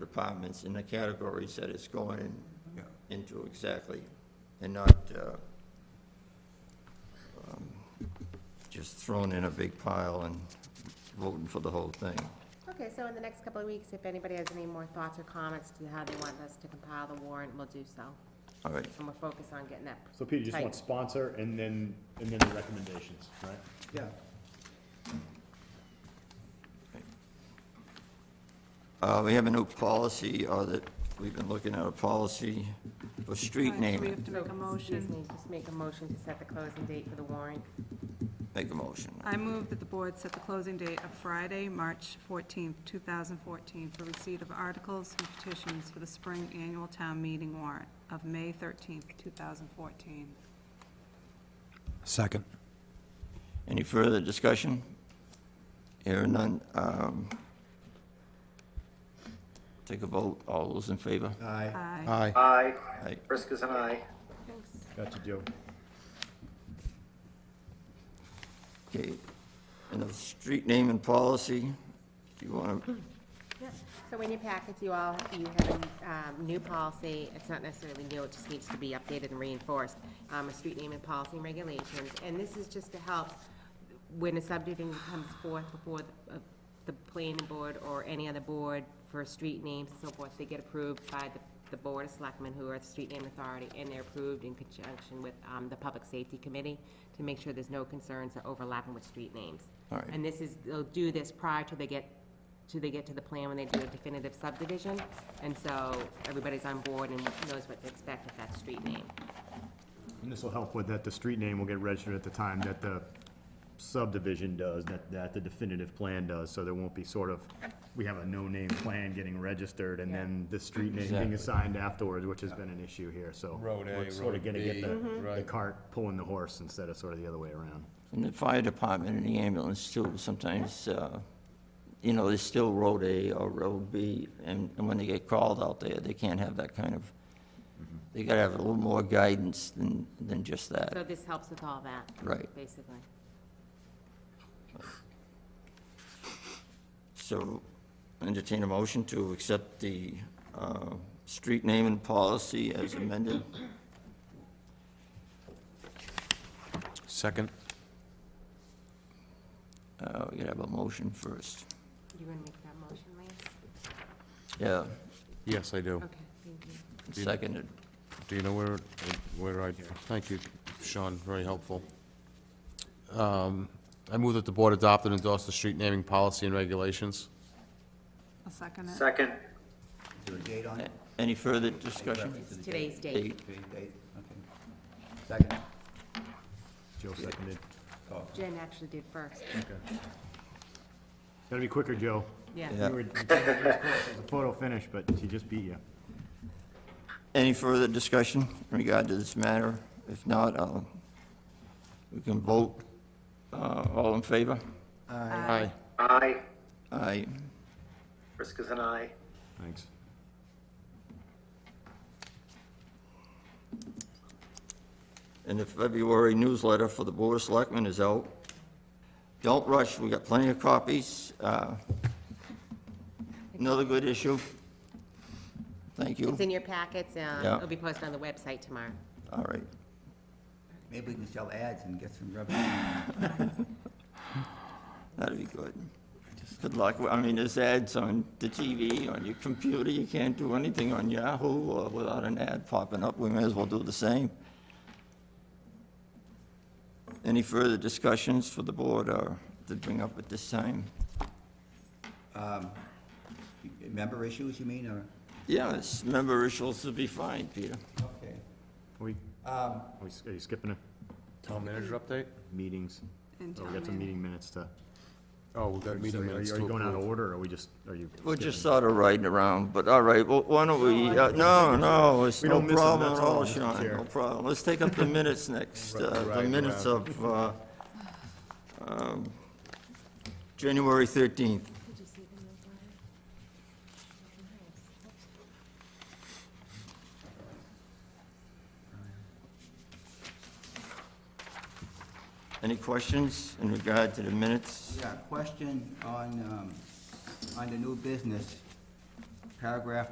departments in the categories that it's going in- Yeah. into exactly, and not uh, um, just thrown in a big pile and voting for the whole thing. Okay, so in the next couple of weeks, if anybody has any more thoughts or comments to how they want us to compile the warrant, we'll do so. All right, And we'll focus on getting that. So Peter, you just tight. want sponsor and then, and then the recommendations, right? Yeah. Uh, we have a new policy, or that, we've been looking at a policy for street Right, so We have naming. to make a Excuse motion. me, Just make a motion to set the closing date for the warrant. Make a motion. I move that the board set the closing date of Friday, March 14th, 2014, for receipt of articles and petitions for the spring annual town meeting warrant of May 13th, 2014. Second. Any further discussion? Hearing none, um, take a vote, all those in favor? Aye. Aye. Aye. Aye. Aye. Briscoe's an aye. Got you, Joe. Okay, and the street name and policy, do you want to, So in your packets, you all, you have a um, new policy, it's not necessarily new, it just needs to be updated and reinforced, um, a street name and policy and regulations, and this is just to help when a subdivision comes forth before the- uh, the planning board or any other board for street names and so forth, they get approved by the, the board of selectmen who are the street name authority, and they're approved in conjunction with um, the public safety committee to make sure there's no concerns or overlapping with street names. All right. And this is, they'll do this prior to they get till they get to the plan when they do a definitive subdivision. And so everybody's on board and knows what to expect with that street name. And this will help with that, the street name will get registered at the time that the subdivision does, that, that the definitive plan does, so there won't be sort of, we have a no-name plan getting registered, and then the street name being Exactly. assigned afterwards, which has been an issue here, so. Road A, we're Sort Road of gonna B, get the, the right. cart pulling the horse instead of sort of the other way around. and the fire department and the ambulance too, sometimes, uh, you know, there's still road A or road B, and and when they get called out there, they can't have that kind of, they gotta have a little more guidance than, than just So that. this helps with all that. Right. Basically. So entertain a motion to accept the uh, street name and policy as amended. Second. Uh, We gotta have a motion first. You want to make that motion, Lance? Yeah, Yes, I do. Okay, thank you. seconded. Do you know where, where I, thank you, Sean, very helpful. Um, I move that the board adopt and endorse the street naming policy and regulations. I'll second it. Second. Is there a date on it? Any further discussion? Reference to the It's today's date. Eight. Date, date, okay. Second, Joe seconded. Jen actually did first. Gotta be quicker, Joe. Yeah. Yeah. You were- you were close. It was a Photo finish, but she just beat you. Any further discussion in regard to this matter? If not, I'll, we can vote. Uh, All in favor? Aye. Aye. Aye. Briscoe's an aye. Thanks. And the February newsletter for the Board of Selectmen is out. Don't rush, we got plenty of copies. Uh, Another good issue. Thank you. It's in your packets, uh, Yeah. it'll be posted on the website tomorrow. All right. maybe we can sell ads and get some revenue. That'd be good. Good luck. I mean, there's ads on the TV, on your computer. You can't do anything on Yahoo uh, without an ad popping up. We may as well do the same. Any further discussions for the board or to bring up at this time? Member issues, you mean, or? Yes, member issues will be fine, Peter. Okay. Are we, Um, are we- are you skipping a Town manager update? meetings? And Oh, we town got some meeting. meeting minutes to. Oh, we've got So are meeting you- minutes Are you to going out of approve. order, or are we just, are you? We're just skipping? sort of riding around, but all right, well, why don't we, uh, no, no, it's We no don't miss 'em, problem at that's all, all, Mr. Sean, Chair. no problem. Let's take up the minutes next, uh, the Right, minutes right. of uh, um, January 13th. Any questions in regard to the minutes? Yeah, question on, um, on the new business. paragraph